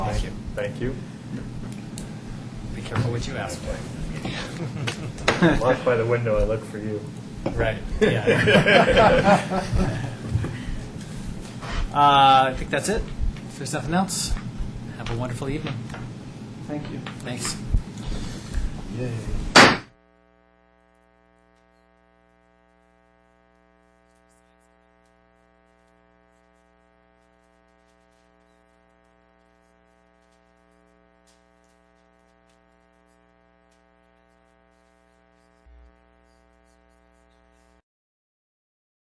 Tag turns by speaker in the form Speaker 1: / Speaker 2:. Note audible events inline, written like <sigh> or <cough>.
Speaker 1: Thank you.
Speaker 2: Thank you.
Speaker 1: Be careful what you ask for.
Speaker 2: Locked by the window, I look for you.
Speaker 1: Right, <laughs> yeah. Uh, I think that's it. If there's nothing else, have a wonderful evening.
Speaker 3: Thank you.
Speaker 1: Thanks.
Speaker 3: Yay.